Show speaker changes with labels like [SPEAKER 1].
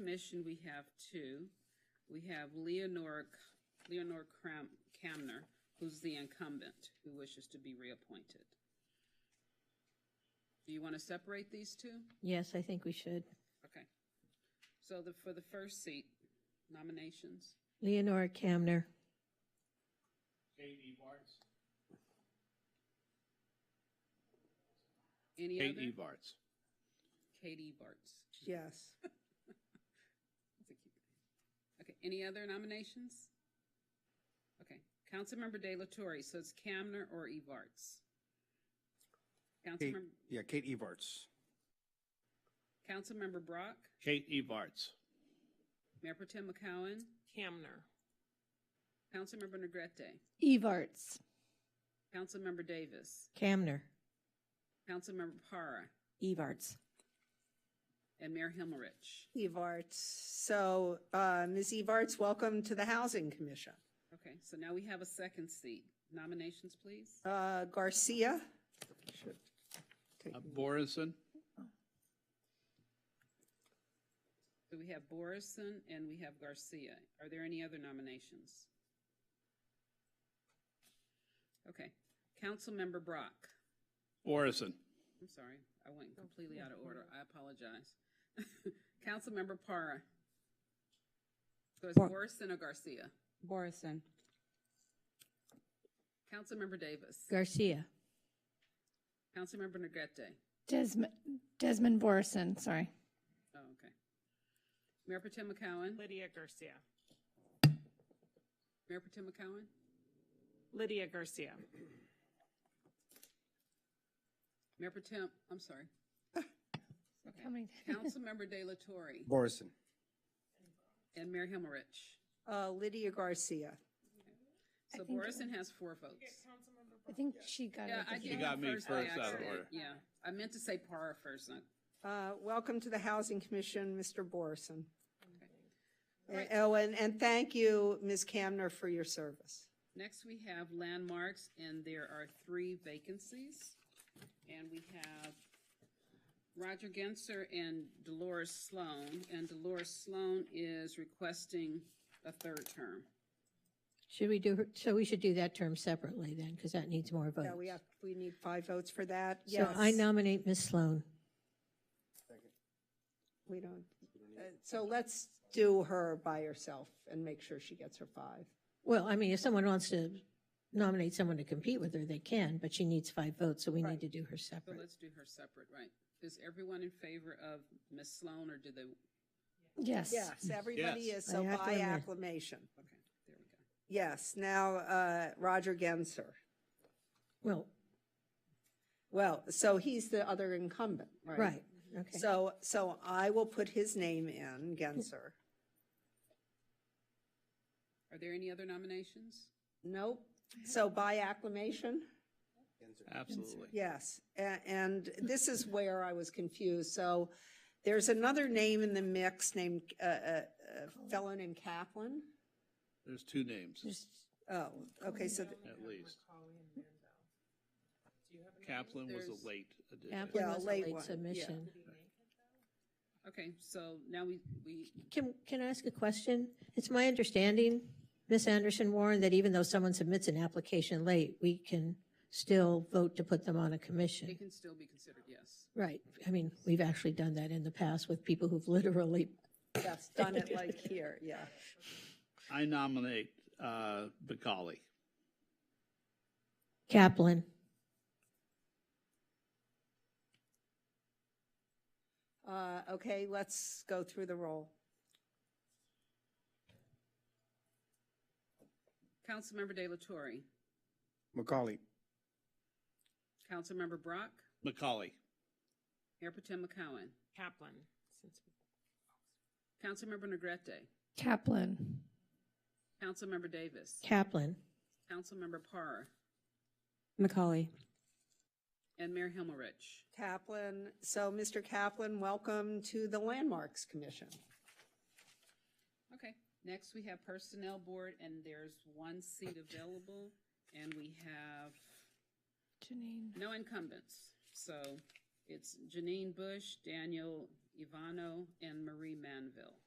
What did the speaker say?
[SPEAKER 1] commission, we have two. We have Leonore, C- Leonore Cram, Camner, who's the incumbent, who wishes to be reappointed. Do you want to separate these two?
[SPEAKER 2] Yes, I think we should.
[SPEAKER 1] Okay. So the, for the first seat, nominations,
[SPEAKER 2] Leonora Camner.
[SPEAKER 3] J.E. Bartz.
[SPEAKER 1] any
[SPEAKER 3] J.E.
[SPEAKER 1] other?
[SPEAKER 3] Bartz.
[SPEAKER 1] Katie Bartz.
[SPEAKER 4] Yes.
[SPEAKER 1] That's a cute name. Okay, any other nominations? Okay, Councilmember De La Torre, so it's Camner or Evarts?
[SPEAKER 5] Kate,
[SPEAKER 1] Councilmember,
[SPEAKER 5] yeah, Kate Evarts.
[SPEAKER 1] Councilmember Brock,
[SPEAKER 3] J.E. Bartz.
[SPEAKER 1] Mayor Pro Tem McCowen,
[SPEAKER 6] Camner.
[SPEAKER 1] Councilmember Negrete,
[SPEAKER 2] Evarts.
[SPEAKER 1] Councilmember Davis,
[SPEAKER 2] Camner.
[SPEAKER 1] Councilmember Para,
[SPEAKER 6] Evarts.
[SPEAKER 1] and Mayor Himmerich.
[SPEAKER 4] Evarts. So, uh, Ms. Evarts, welcome to the Housing Commission.
[SPEAKER 1] Okay, so now we have a second seat. Nominations, please.
[SPEAKER 4] Uh, Garcia,
[SPEAKER 3] Uh, Borison.
[SPEAKER 1] So we have Borison and we have Garcia. Are there any other nominations? Okay, Councilmember Brock.
[SPEAKER 3] Borison.
[SPEAKER 1] I'm sorry, I went completely out of order. I apologize. Councilmember Para. So it's
[SPEAKER 7] Bar-
[SPEAKER 1] Borison or Garcia?
[SPEAKER 7] Borison.
[SPEAKER 1] Councilmember Davis.
[SPEAKER 2] Garcia.
[SPEAKER 1] Councilmember Negrete.
[SPEAKER 8] Desmond, Desmond Borison, sorry.
[SPEAKER 1] Oh, okay. Mayor Pro Tem McCowen.
[SPEAKER 6] Lydia Garcia.
[SPEAKER 1] Mayor Pro Tem McCowen.
[SPEAKER 6] Lydia Garcia.
[SPEAKER 1] Mayor Pro Tem, I'm sorry.
[SPEAKER 8] How
[SPEAKER 1] Okay.
[SPEAKER 8] many?
[SPEAKER 1] Councilmember De La Torre
[SPEAKER 5] Borison.
[SPEAKER 1] and Mayor Himmerich.
[SPEAKER 4] uh, Lydia Garcia.
[SPEAKER 1] So
[SPEAKER 8] think-
[SPEAKER 1] Borison has four votes.
[SPEAKER 8] I think she got
[SPEAKER 1] Yeah, I
[SPEAKER 8] it.
[SPEAKER 1] did.
[SPEAKER 3] You got
[SPEAKER 1] it
[SPEAKER 3] me
[SPEAKER 1] by
[SPEAKER 3] first out of
[SPEAKER 1] accident.
[SPEAKER 3] order.
[SPEAKER 1] Yeah, I meant to say Para first, not
[SPEAKER 4] Uh, welcome to the Housing Commission, Mr. Borison.
[SPEAKER 1] Right.
[SPEAKER 4] Oh, and, and thank you, Ms. Camner, for your service.
[SPEAKER 1] Next, we have landmarks, and there are three vacancies. And we have Roger Genser and Dolores Sloan, and Dolores Sloan is requesting a third term.
[SPEAKER 2] Should we do, her so we should do that term separately then, because that needs more votes.
[SPEAKER 4] Yeah, we have, we need five votes for that.
[SPEAKER 2] So
[SPEAKER 4] Yes.
[SPEAKER 2] I nominate Ms. Sloan.
[SPEAKER 4] We don't, uh, so let's do her by herself and make sure she gets her five.
[SPEAKER 2] Well, I mean, if someone wants to nominate someone to compete with her, they can, but she needs five votes, so we need to do her
[SPEAKER 1] So
[SPEAKER 2] separate.
[SPEAKER 1] let's do her separate, right? Is everyone in favor of Ms. Sloan, or do they,
[SPEAKER 8] Yes.
[SPEAKER 4] Yes, everybody
[SPEAKER 3] Yes.
[SPEAKER 4] is, so
[SPEAKER 2] I have to
[SPEAKER 4] by
[SPEAKER 2] admit.
[SPEAKER 4] acclamation.
[SPEAKER 1] okay, there we go.
[SPEAKER 4] Yes, now, uh, Roger Genser.
[SPEAKER 2] Well,
[SPEAKER 4] Well, so he's the other incumbent, right?
[SPEAKER 2] right, okay.
[SPEAKER 4] So, so I will put his name in, Genser.
[SPEAKER 1] Are there any other nominations?
[SPEAKER 4] Nope. So by acclamation?
[SPEAKER 3] Absolutely.
[SPEAKER 4] Yes, a- and this is where I was confused. So there's another name in the mix named, uh, uh, a fellow named Kaplan.
[SPEAKER 3] There's two names,
[SPEAKER 2] Just-
[SPEAKER 4] Oh, okay, so, th-
[SPEAKER 3] at least. Kaplan was
[SPEAKER 1] There's-
[SPEAKER 3] a late addition.
[SPEAKER 2] Kaplan
[SPEAKER 4] Yeah,
[SPEAKER 2] was a
[SPEAKER 4] late
[SPEAKER 2] late
[SPEAKER 4] one, yeah.
[SPEAKER 2] submission.
[SPEAKER 1] Okay, so now we, we,
[SPEAKER 2] Can, can I ask a question? It's my understanding, Ms. Anderson Warren, that even though someone submits an application late, we can still vote to put them on a
[SPEAKER 1] they
[SPEAKER 2] commission.
[SPEAKER 1] can still be considered, yes.
[SPEAKER 2] Right. I mean, we've actually done that in the past with people who've literally,
[SPEAKER 4] yes, done it like here, yeah.
[SPEAKER 3] I nominate uh, Bacali.
[SPEAKER 2] Kaplan,
[SPEAKER 4] Uh, okay, let's go through the roll.
[SPEAKER 1] Councilmember De La Torre,
[SPEAKER 5] Macaulay.
[SPEAKER 1] Councilmember Brock,
[SPEAKER 3] Macaulay.
[SPEAKER 1] Mayor Pro Tem McCowen,
[SPEAKER 6] Kaplan. Since
[SPEAKER 1] Councilmember Negrete,
[SPEAKER 8] Kaplan.
[SPEAKER 1] Councilmember Davis.
[SPEAKER 2] Kaplan,
[SPEAKER 1] Councilmember Parr
[SPEAKER 7] Macaulay.
[SPEAKER 1] and Mayor Himmerich.
[SPEAKER 4] Kaplan, so Mr. Kaplan, welcome to the Landmarks Commission.
[SPEAKER 1] Okay, next we have Personnel Board, and there's one seat available, and we have
[SPEAKER 8] Janine.
[SPEAKER 1] no incumbents. So it's Janine Bush, Daniel Ivano, and Marie Manville.